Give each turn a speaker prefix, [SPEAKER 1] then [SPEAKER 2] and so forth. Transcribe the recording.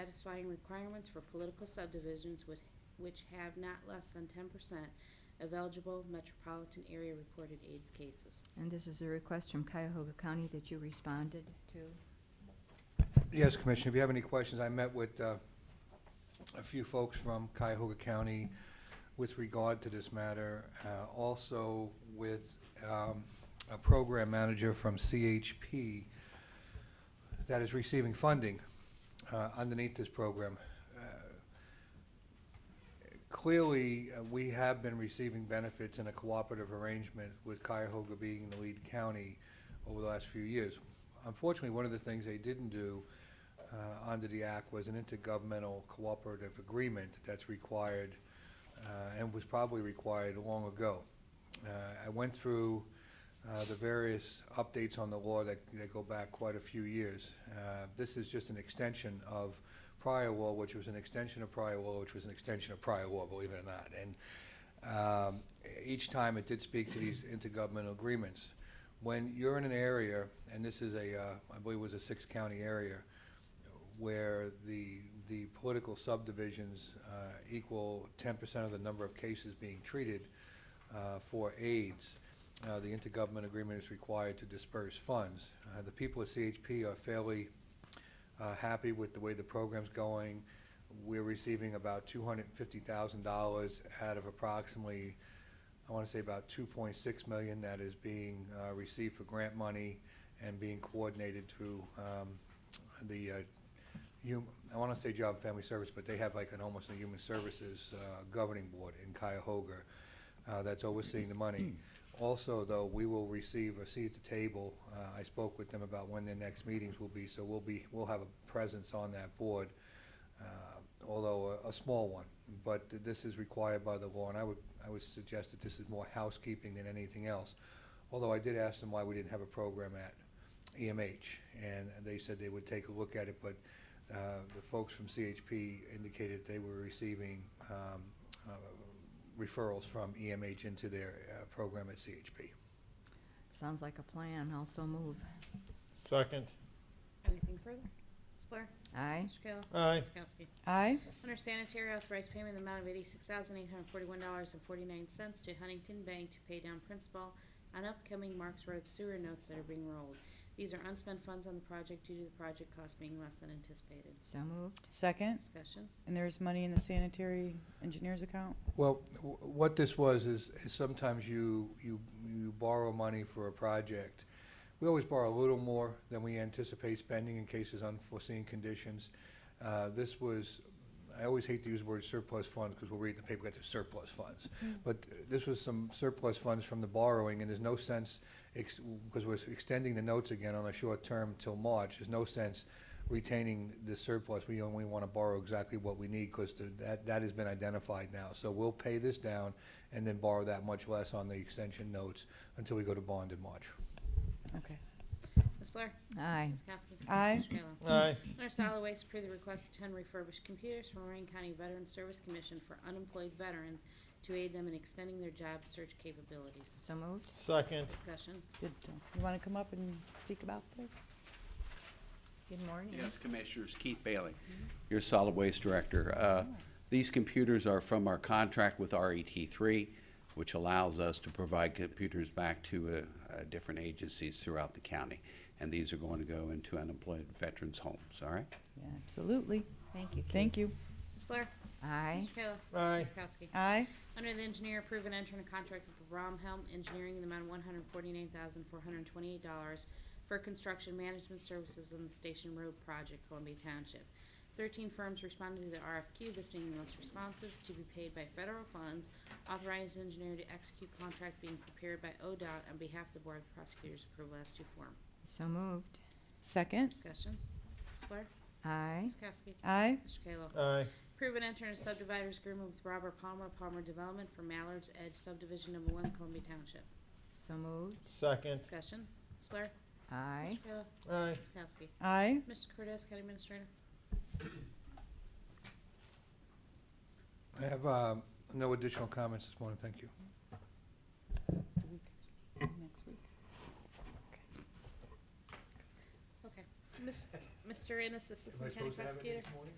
[SPEAKER 1] satisfying requirements for political subdivisions with- which have not less than 10% of eligible metropolitan area reported AIDS cases.
[SPEAKER 2] And this is a request from Cuyahoga County that you responded to.
[SPEAKER 3] Yes, Commissioner, if you have any questions, I met with uh, a few folks from Cuyahoga County with regard to this matter, uh, also with um, a program manager from CHP that is receiving funding uh, underneath this program. Uh, Clearly, uh, we have been receiving benefits in a cooperative arrangement with Cuyahoga being the lead county over the last few years. Unfortunately, one of the things they didn't do uh, under the act was an intergovernmental cooperative agreement that's required uh, and was probably required long ago. Uh, I went through uh, the various updates on the law that that go back quite a few years. Uh, This is just an extension of prior law, which was an extension of prior law, which was an extension of prior law, believe it or not. And um, each time it did speak to these intergovernmental agreements. When you're in an area, and this is a, uh, I believe it was a six-county area, where the, the political subdivisions uh, equal 10% of the number of cases being treated uh, for AIDS, uh, the intergovernment agreement is required to disperse funds. Uh, The people at CHP are fairly uh, happy with the way the program's going. We're receiving about $250,000 out of approximately, I want to say about 2.6 million that is being uh, received for grant money and being coordinated through um, the, uh, hum- I want to say Job and Family Service, but they have like an almost a Human Services uh, Governing Board in Cuyahoga uh, that's overseeing the money. Also, though, we will receive a seat at the table. Uh, I spoke with them about when their next meetings will be, so we'll be, we'll have a presence on that board, uh, although a, a small one. But this is required by the law, and I would, I would suggest that this is more housekeeping than anything else. Although I did ask them why we didn't have a program at EMH, and they said they would take a look at it, but uh, the folks from CHP indicated they were receiving um, uh, referrals from EMH into their uh, program at CHP.
[SPEAKER 2] Sounds like a plan. Also move.
[SPEAKER 4] Second.
[SPEAKER 1] Anything further? Ms. Blair?
[SPEAKER 2] Aye.
[SPEAKER 1] Mr. Kayla?
[SPEAKER 4] Aye.
[SPEAKER 1] Ms. Kowski?
[SPEAKER 5] Aye.
[SPEAKER 1] Under sanitary, authorized payment in the amount of $86,841.49 to Huntington Bank to pay down principal on upcoming Marks Road sewer notes that are being rolled. These are unspent funds on the project due to the project cost being less than anticipated.
[SPEAKER 2] So moved.
[SPEAKER 5] Second,
[SPEAKER 1] Discussion.
[SPEAKER 5] and there's money in the sanitary engineer's account?
[SPEAKER 3] Well, w- what this was is is sometimes you, you, you borrow money for a project. We always borrow a little more than we anticipate spending in cases unforeseen conditions. Uh, This was, I always hate to use the word surplus funds because we'll read in the paper that there's surplus funds. But uh, this was some surplus funds from the borrowing and there's no sense, because we're extending the notes again on a short term till March, there's no sense retaining the surplus, we only want to borrow exactly what we need, because that, that has been identified now. So we'll pay this down and then borrow that much less on the extension notes until we go to bond in March.
[SPEAKER 5] Okay.
[SPEAKER 1] Ms. Blair?
[SPEAKER 2] Aye.
[SPEAKER 1] Ms. Kowski?
[SPEAKER 5] Aye.
[SPEAKER 1] Mr. Kayla?
[SPEAKER 4] Aye.
[SPEAKER 1] Under solid waste, approve the request of 10 refurbished computers from Lorraine County Veterans Service Commission for unemployed veterans to aid them in extending their job search capabilities.
[SPEAKER 2] So moved.
[SPEAKER 4] Second.
[SPEAKER 1] Discussion.
[SPEAKER 5] Did, uh, you want to come up and speak about this?
[SPEAKER 2] Good morning.
[SPEAKER 6] Yes, Commissioners, Keith Bailey, your solid waste director. Uh, These computers are from our contract with RET3, which allows us to provide computers back to uh, uh, different agencies throughout the county. And these are going to go into unemployed veterans' homes, all right?
[SPEAKER 5] Yeah, absolutely.
[SPEAKER 2] Thank you, Keith.
[SPEAKER 5] Thank you.
[SPEAKER 1] Ms. Blair?
[SPEAKER 2] Aye.
[SPEAKER 1] Mr. Kayla?
[SPEAKER 4] Aye.
[SPEAKER 1] Ms. Kowski?
[SPEAKER 5] Aye.
[SPEAKER 1] Under the engineer, approve and enter into contract with Bromhelm Engineering in the amount of one hundred forty-nine thousand, four hundred twenty-eight dollars for construction management services on the Station Road project, Columbia Township. Thirteen firms responded to the RFQ, this being the most responsive, to be paid by federal funds. Authorized engineer to execute contract being prepared by ODOT on behalf of the Board of Prosecutors, approve as to form.
[SPEAKER 2] So moved.
[SPEAKER 5] Second,
[SPEAKER 1] Discussion. Ms. Blair?
[SPEAKER 2] Aye.
[SPEAKER 1] Ms. Kowski?
[SPEAKER 5] aye.
[SPEAKER 1] Mr. Kayla?
[SPEAKER 4] Aye.
[SPEAKER 1] Approve and enter into subdividers agreement with Robert Palmer, Palmer Development for Mallard's Edge subdivision number one, Columbia Township.
[SPEAKER 2] So moved.
[SPEAKER 4] Second.
[SPEAKER 1] Discussion. Ms. Blair?
[SPEAKER 2] Aye.
[SPEAKER 1] Mr. Kayla?
[SPEAKER 4] Aye.
[SPEAKER 1] Ms. Kowski?
[SPEAKER 5] Aye.
[SPEAKER 1] Mr. Cortez, County Administrator?
[SPEAKER 3] I have um, no additional comments this morning, thank you.
[SPEAKER 5] Next week.
[SPEAKER 1] Okay. Ms. Mr. Ennis,
[SPEAKER 3] Am I
[SPEAKER 1] Assistant County
[SPEAKER 3] supposed to have it
[SPEAKER 1] Prosecutor.
[SPEAKER 3] this morning?